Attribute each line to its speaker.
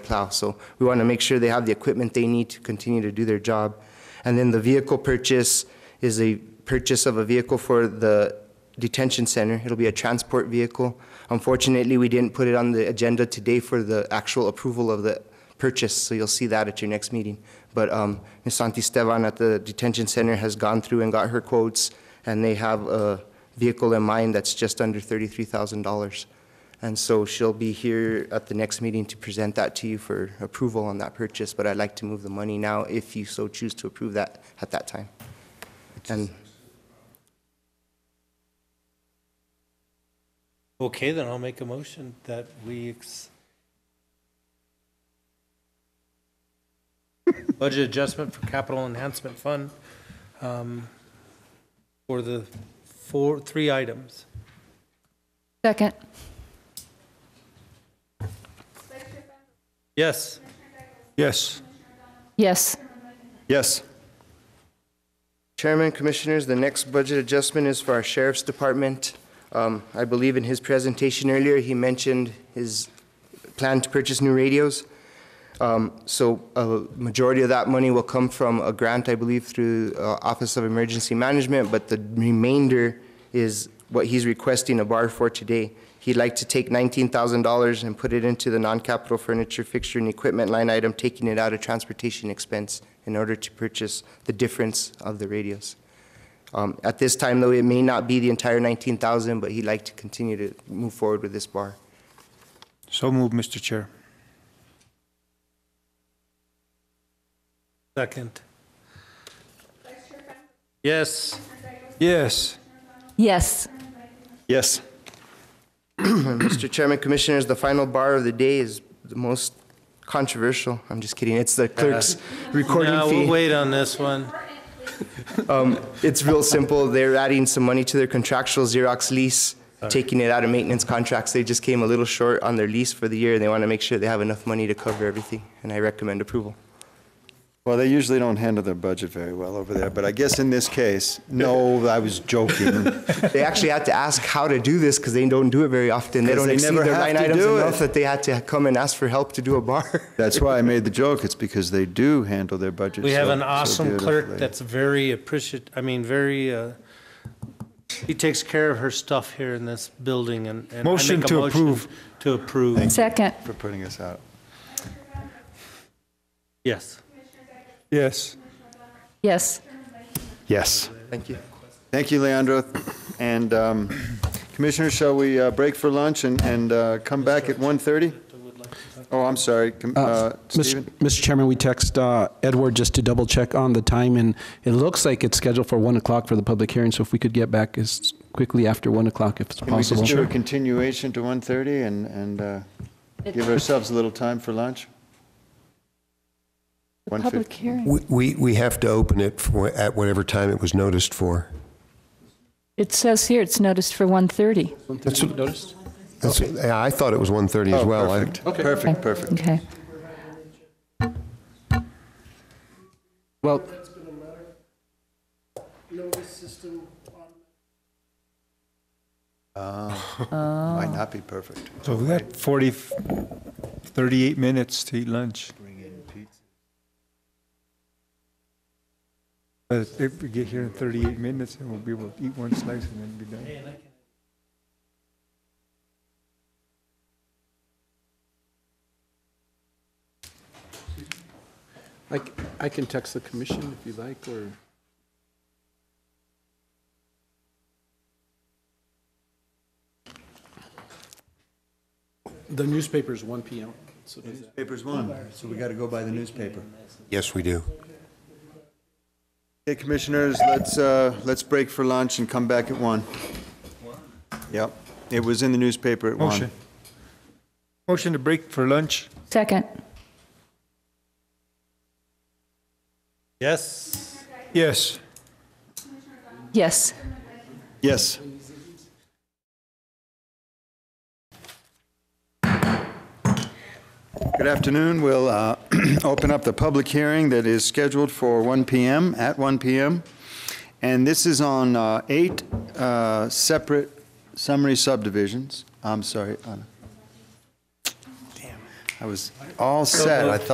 Speaker 1: plow. So we want to make sure they have the equipment they need to continue to do their job. And then the vehicle purchase is a purchase of a vehicle for the detention center. It'll be a transport vehicle. Unfortunately, we didn't put it on the agenda today for the actual approval of the purchase, so you'll see that at your next meeting. But um, Ms. Santisteban at the detention center has gone through and got her quotes, and they have a vehicle in mind that's just under $33,000. And so she'll be here at the next meeting to present that to you for approval on that purchase, but I'd like to move the money now if you so choose to approve that at that time. And
Speaker 2: Okay, then I'll make a motion that we ex- budget adjustment for capital enhancement fund um, for the four, three items.
Speaker 3: Second.
Speaker 2: Yes,
Speaker 4: Yes.
Speaker 3: Yes.
Speaker 4: Yes.
Speaker 1: Chairman, Commissioners, the next budget adjustment is for our Sheriff's Department. Um, I believe in his presentation earlier, he mentioned his plan to purchase new radios. Um, So a majority of that money will come from a grant, I believe, through uh, Office of Emergency Management, but the remainder is what he's requesting a bar for today. He'd like to take $19,000 and put it into the non-capital furniture, fixture, and equipment line item, taking it out of transportation expense in order to purchase the difference of the radios. Um, At this time, though, it may not be the entire 19,000, but he'd like to continue to move forward with this bar.
Speaker 4: So moved, Mr. Chair.
Speaker 2: second. Yes,
Speaker 4: Yes.
Speaker 3: Yes.
Speaker 4: Yes.
Speaker 1: Mr. Chairman, Commissioners, the final bar of the day is the most controversial. I'm just kidding. It's the clerk's recording
Speaker 2: now we'll
Speaker 1: fee.
Speaker 2: wait on this one.
Speaker 1: It's real simple. They're adding some money to their contractual Xerox lease, taking it out of maintenance contracts. They just came a little short on their lease for the year. They want to make sure they have enough money to cover everything, and I recommend approval.
Speaker 5: Well, they usually don't handle their budget very well over there, but I guess in this case, no, I was joking.
Speaker 1: They actually had to ask how to do this because they don't do it very often. They
Speaker 5: 'Cause
Speaker 1: don't
Speaker 5: they
Speaker 1: exceed
Speaker 5: never
Speaker 1: their
Speaker 5: have
Speaker 1: line
Speaker 5: to
Speaker 1: items
Speaker 5: do it.
Speaker 1: enough that they had to come and ask for help to do a bar.
Speaker 5: That's why I made the joke. It's because they do handle their budget.
Speaker 2: We have
Speaker 5: so-
Speaker 2: an
Speaker 5: so
Speaker 2: awesome
Speaker 5: beautifully.
Speaker 2: clerk that's very appreciate, I mean, very, uh, he takes care of her stuff here in this building and. and I
Speaker 4: Motion
Speaker 2: make a
Speaker 4: to
Speaker 2: motion
Speaker 4: approve.
Speaker 2: To approve,
Speaker 3: Second.
Speaker 5: For putting us out.
Speaker 2: yes.
Speaker 4: Yes.
Speaker 3: Yes.
Speaker 5: Yes.
Speaker 1: Thank you.
Speaker 5: Thank you, Leandro. And um, Commissioner, shall we uh, break for lunch and, and uh, come back at 1:30? Oh, I'm sorry, Com- uh,
Speaker 6: Mr.
Speaker 5: Stephen?
Speaker 6: Mr. Chairman, we text uh, Edward just to double check on the time, and it looks like it's scheduled for 1 o'clock for the public hearing, so if we could get back as quickly after 1 o'clock if it's
Speaker 5: Can we just
Speaker 6: possible.
Speaker 5: do a continuation to 1:30 and, and uh, give ourselves a little time for lunch? One fif-
Speaker 3: Public hearing.
Speaker 7: We, we we have to open it for, at whatever time it was noticed for.
Speaker 3: It says here it's noticed for 1:30.
Speaker 7: That's what- that's- yeah, I thought it was 1:30 as
Speaker 5: Oh,
Speaker 7: well. I-
Speaker 5: perfect. Perfect, perfect.
Speaker 3: Okay.
Speaker 6: Well,
Speaker 5: Might not be perfect.
Speaker 4: So we got 40, 38 minutes to eat lunch. But Uh, if we get here in 38 minutes, and we'll be able to eat one slice and then be done.
Speaker 8: I, c- I can text the commission if you like, or the newspaper's 1 PM. So does that-
Speaker 5: Paper's one, so we got to go by the newspaper.
Speaker 7: Yes, we do.
Speaker 5: Hey, commissioners, let's, uh, let's break for lunch and come back at one. Yep, it was in the newspaper at one.
Speaker 4: Motion. Motion to break for lunch.
Speaker 3: Second.
Speaker 2: Yes.
Speaker 4: Yes.
Speaker 3: Yes.
Speaker 5: Yes. Good afternoon. We'll uh, open up the public hearing that is scheduled for 1 PM, at 1 PM. And this is on uh, eight uh, separate summary subdivisions. I'm sorry. Anna. I was all set. I thought